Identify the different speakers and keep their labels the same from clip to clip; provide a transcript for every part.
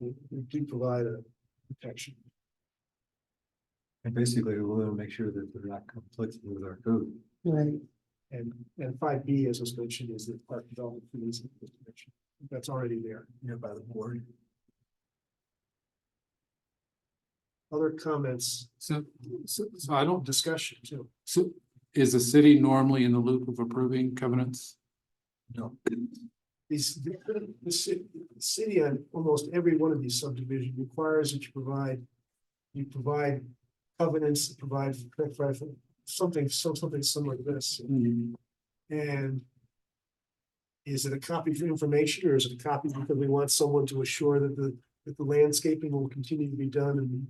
Speaker 1: we, we do provide a protection.
Speaker 2: And basically, we want to make sure that they're not conflicting with our code.
Speaker 1: Right. And, and five B, as was mentioned, is the park development fees, and the protection. that's already there. Yeah, by the board. Other comments,
Speaker 3: So, so, so I don't,
Speaker 1: discussion too.
Speaker 3: so, is the city normally in the loop of approving covenants?
Speaker 1: These, the, the ci- the city on almost every one of these subdivisions requires that you provide. You provide covenants, provide something, some, something similar to this.
Speaker 4: Mm-hmm.
Speaker 1: And. Is it a copy for information or is it a copy because we want someone to assure that the, that the landscaping will continue to be done and.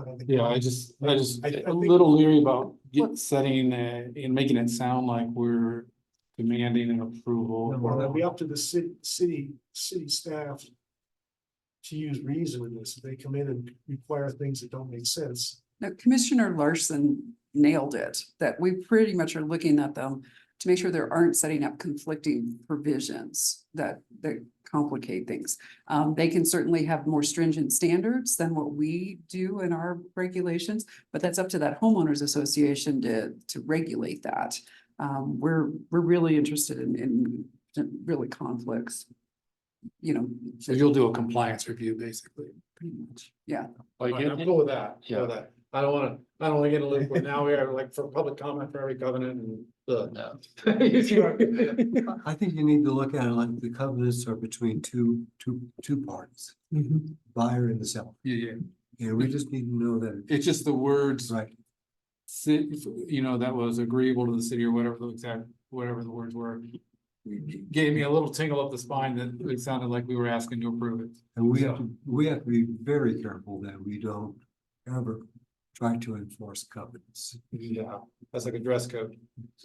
Speaker 1: uh, the-
Speaker 3: Yeah, I just, I just,
Speaker 1: I- I
Speaker 3: a
Speaker 1: think-
Speaker 3: little leery about get- setting, uh, and making it sound like we're demanding an approval.
Speaker 1: Or it'll be up to the city, city, city staff. To use reason in this, if they come in and require things that don't make sense.
Speaker 5: No, Commissioner Larson nailed it, that we pretty much are looking at them to make sure there aren't setting up conflicting provisions that, that complicate things. Um, they can certainly have more stringent standards than what we do in our regulations, but that's up to that homeowners association to, to regulate that. Um, we're, we're really interested in, in really conflicts. You know,
Speaker 3: So you'll do a compliance review, basically.
Speaker 5: pretty much, yeah.
Speaker 3: Like,
Speaker 4: Right, I'm
Speaker 3: it-
Speaker 4: cool with that, I'm cool
Speaker 3: Yeah.
Speaker 4: with that. I don't wanna, I don't wanna get in a loop where now we are like for public comment for every covenant and the.
Speaker 2: I think you need to look at it like the covenants are between two, two, two parties,
Speaker 3: Mm-hmm.
Speaker 2: buyer and the seller.
Speaker 3: yeah, yeah,
Speaker 2: And we just need to know that
Speaker 3: it's just the words,
Speaker 2: it's right.
Speaker 3: si- you know, that was agreeable to the city or whatever the exact, whatever the words were. Gave me a little tingle up the spine that it sounded like we were asking to approve it.
Speaker 2: And we have, to we have to be very careful that we don't ever try to enforce covenants.
Speaker 4: Yeah, that's like a dress code.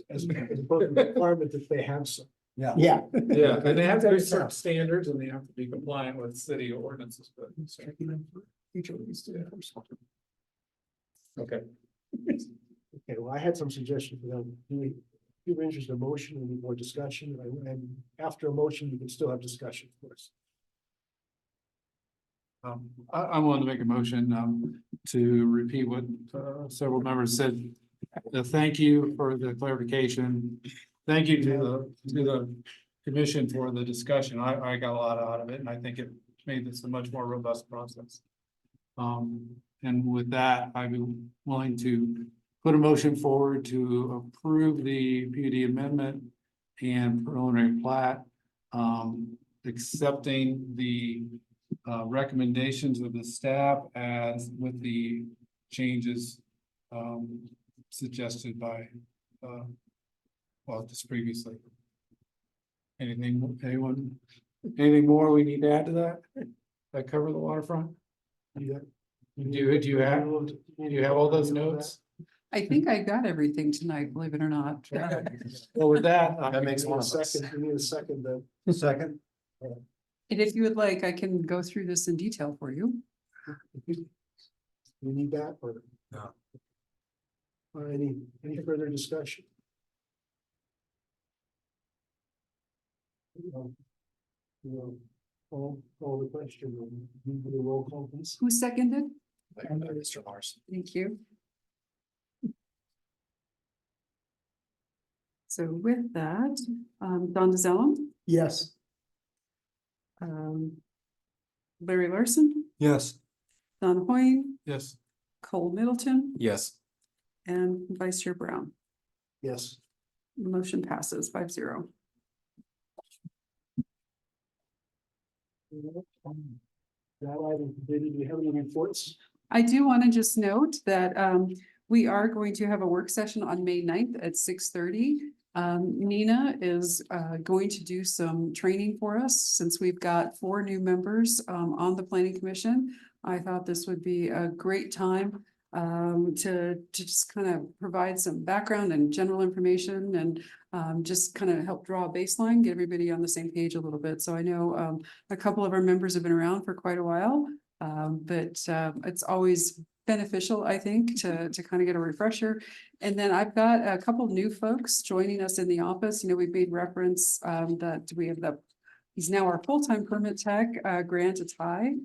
Speaker 1: As as both a requirement that they have some.
Speaker 2: Yeah.
Speaker 1: Yeah.
Speaker 4: Yeah, and they have to have certain standards and they have to be compliant with city ordinances, but. so, Okay.
Speaker 1: Okay, well, I had some suggestions for them. Do we, if you're interested in motion, we need more discussion, and- and after a motion, you can still have discussion, of course.
Speaker 3: Um, I, I wanted to make a motion, um, to repeat what, uh, several members said. Uh, thank you for the clarification. Thank you to the, to the commission for the discussion. I, I got a lot out of it and I think it made this a much more robust process. Um, and with that, I'd be willing to put a motion forward to approve the PUD amendment and preliminary plat, um, accepting the uh, recommendations of the staff as with the changes um, suggested by, uh, well, just previously. Anything, anyone, anything more we need to add to that? That cover the waterfront?
Speaker 1: Yeah.
Speaker 3: Do, do you have, do you have all those notes?
Speaker 5: I think I got everything tonight, believe it or not. Uh,
Speaker 3: Well, with that. I-
Speaker 4: That makes
Speaker 1: We need a
Speaker 4: one of us.
Speaker 1: second, we need a second, then.
Speaker 2: Second,
Speaker 5: And if you would like, I can go through this in detail for you.
Speaker 1: We need that, or?
Speaker 2: No.
Speaker 1: Or any, any further discussion? No. No. All, all the question, we do the roll call, please.
Speaker 5: Who seconded?
Speaker 4: Mr. Larson.
Speaker 5: Thank you. So with that, um, Don DeZellum,
Speaker 1: Yes.
Speaker 5: um, Larry Larson,
Speaker 2: yes.
Speaker 5: Don Hoyne,
Speaker 3: Yes,
Speaker 5: Cole Middleton,
Speaker 2: Yes.
Speaker 5: and Vice Chair Brown.
Speaker 1: Yes.
Speaker 5: Motion passes five zero.
Speaker 1: That item completed, do we have any reports?
Speaker 5: I do want to just note that um, we are going to have a work session on May 9th at six thirty. Um, Nina is uh, going to do some training for us since we've got four new members um, on the planning commission. I thought this would be a great time um, to to just kind of provide some background and general information and um, just kind of help draw a baseline, get everybody on the same page a little bit. So I know um, a couple of our members have been around for quite a while. Um, but, uh, it's always beneficial, I think, to, to kind of get a refresher. And then I've got a couple new folks joining us in the office. You know, we've made reference, um, that we have the, he's now our full-time permit tech, uh, Grant Atai.